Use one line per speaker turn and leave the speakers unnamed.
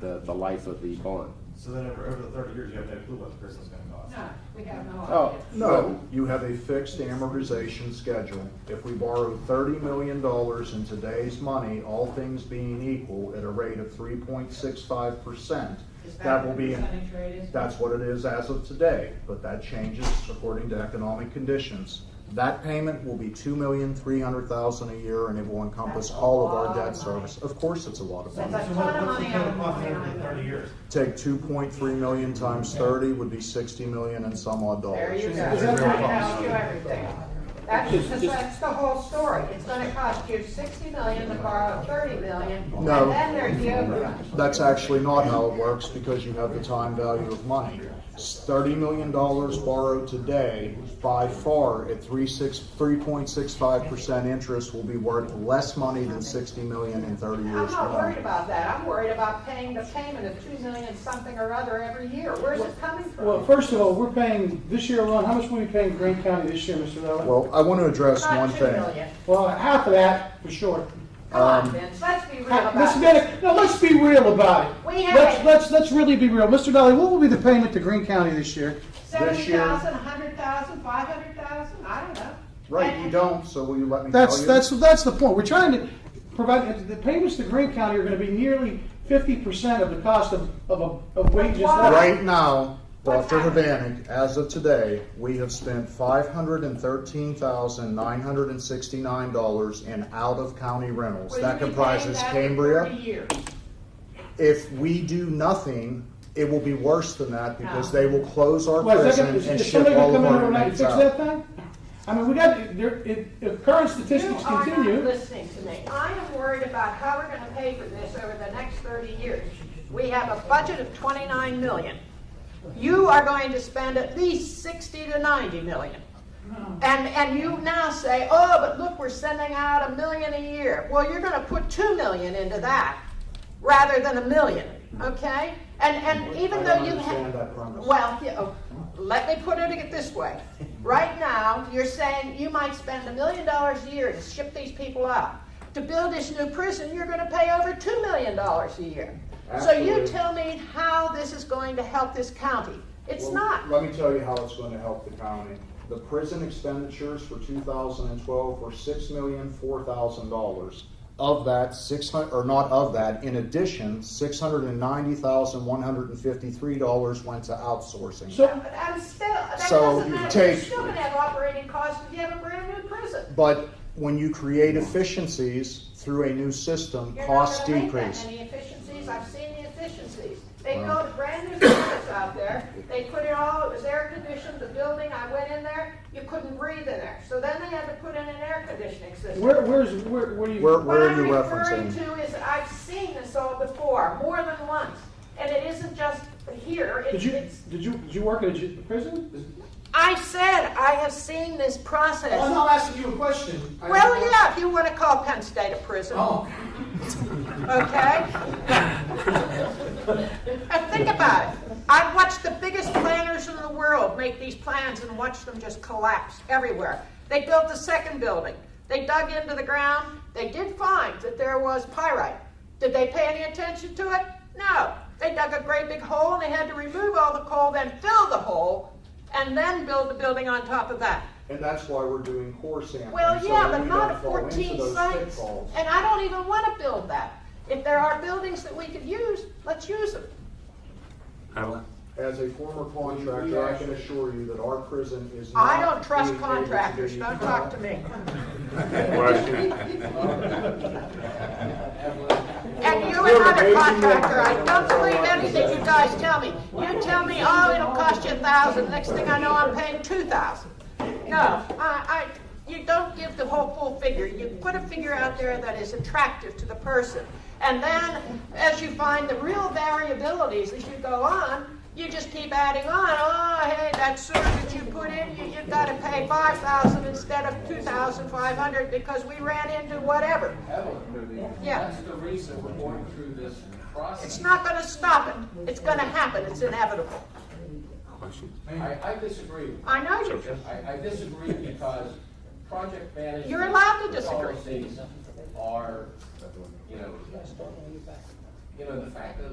the, the life of the bond.
So then over, over the thirty years, you have no clue what the person's gonna cost.
No, we have no
Oh.
idea.
No, you have a fixed amortization schedule. If we borrow thirty million dollars in today's money, all things being equal, at a rate of three point six five percent,
Is
that will be,
the percentage rate is?
that's what it is as of today, but that changes according to economic conditions. That payment will be two million three hundred thousand a year, and it will encompass
That's a
all of our
lot
debt
of money.
service. Of course, it's a lot of
So
money.
that's
So
a
what,
lot of
what's the
money
total
out
cost
of
over the thirty
money.
years?
Take two point three million times thirty would be sixty million and some odd
There
dollars.
you go.
Is
That's
that
gonna
right?
cost you everything. That's, because that's the whole story. It's gonna cost you sixty million to borrow thirty million. And
No.
then there's the overrun.
That's actually not how it works because you have the time value of money. Thirty million dollars borrowed today, by far at three six, three point six five percent interest will be worth less money than sixty million in thirty
I'm
years from
not worried
now.
about that. I'm worried about paying the payment of two million something or other every year. Where's it coming from?
Well, first of all, we're paying, this year alone, how much were we paying Grant County this year, Mr. Rowley?
Well, I want to address one
Not two
thing.
million.
Well, half of that, for sure.
Come on,
Um,
Vince, let's be real about
Let's
it.
get, it- no, let's be real about it.
We have
Let's,
it.
let's, let's really be real. Mr. Dolly, what will be the payment to Green County this year?
Seventy
This year-
thousand, a hundred thousand, five hundred thousand, I don't know.
Right,
And-
you don't, so will you let me tell you?
That's, that's, that's the point. We're trying to provide, the payments to Green County are gonna be nearly fifty percent of the cost of, of, a- of wages.
Why?
Right now,
What's
Dr.
happening?
Havanek, as of today, we have spent five hundred and thirteen thousand nine hundred and sixty-nine dollars in out-of-county rentals.
Will you
That
be paying
comprises
that for
Cambria.
30 years?
If we do nothing, it will be worse than that because
No.
they will close our
Well, is
prison
that gonna, is
and
is
ship
somebody
all of
gonna come in
our
overnight
inmates
and fix
out.
that thing? I mean, we got, there, if, if current
You
statistics
are not
continue,
listening to me. I am worried about how we're gonna pay for this over the next thirty years. We have a budget of twenty-nine million. You are going to spend at least sixty to ninety million. And, and you now say, oh, but look, we're sending out a million a year. Well, you're gonna put two million into that rather than a million, okay? And, and even
I
though
don't
you have.
understand that premise.
Well, you know, let me put it this way. Right now, you're saying you might spend a million dollars a year to ship these people out. To build this new prison, you're gonna pay over two million dollars a year. So you
Absolutely.
tell me how this is going to help this county. It's
Well,
not.
Let me tell you how it's going to help the county. The prison expenditures for two thousand and twelve were six million, four thousand dollars. Of that, six hundred or not of that, in addition, six hundred and ninety thousand, one hundred and fifty-three dollars went to outsourcing.
so,
But I'm still, that
So
doesn't
you
matter. You're
take-
still gonna have operating costs if you have a brand new prison.
But when you create efficiencies through a new system,
You're not
costs
gonna make that
decrease.
many efficiencies, I've seen the efficiencies. They built brand new buildings out there, they put it all, it was air conditioned, the building, I went in there, you couldn't breathe in there. So then they had to put in an air conditioning system.
where, where's, where, where do you?
Where, where are you
What I'm referring
referencing?
to is, I've seen this all before, more than once, and it isn't just here,
Did
it's,
you,
it's,
did you, did you work at a ju- prison?
I said, I have seen this process.
not asking you a question.
Well, yeah, if you want to call Penn State a prison.
Oh,
Okay? And think about it. I've watched the biggest planners in the world make these plans and watched them just collapse everywhere. They built the second building. They dug into the ground. They did find that there was pyrite. Did they pay any attention to it? No. They dug a great big hole and they had to remove all the coal, then fill the hole, and then build the building on top of that.
And that's why we're doing core sampling.
Well,
so
yeah,
that
but
we
not
don't
at
fall into
fourteen
those
sites,
pitfalls.
and I don't even wanna build that. If there are buildings that we could use, let's use them.
As a former contractor, I can assure you that our prison is not.
I don't trust
being able to
contractors,
be-
don't talk to me. And you
You're
another
amazing.
contractor, I don't believe anything you guys tell me. You tell me, oh, it'll cost you a thousand, next thing I know, I'm paying two thousand. No, I, I, you don't give the whole full figure, you put a figure out there that is attractive to the person. And then, as you find the real variabilities as you go on, you just keep adding on, oh, hey, that sewer that you put in, you, you've gotta pay five thousand instead of two thousand five hundred because we ran into whatever. Yeah.
That's the reason we're going through this
It's
process.
not gonna stop it. It's gonna happen. It's inevitable.
I, I disagree.
I know you do.
I, I disagree because project management.
You're allowed to disagree.
Policies are, you know, you know, the fact of the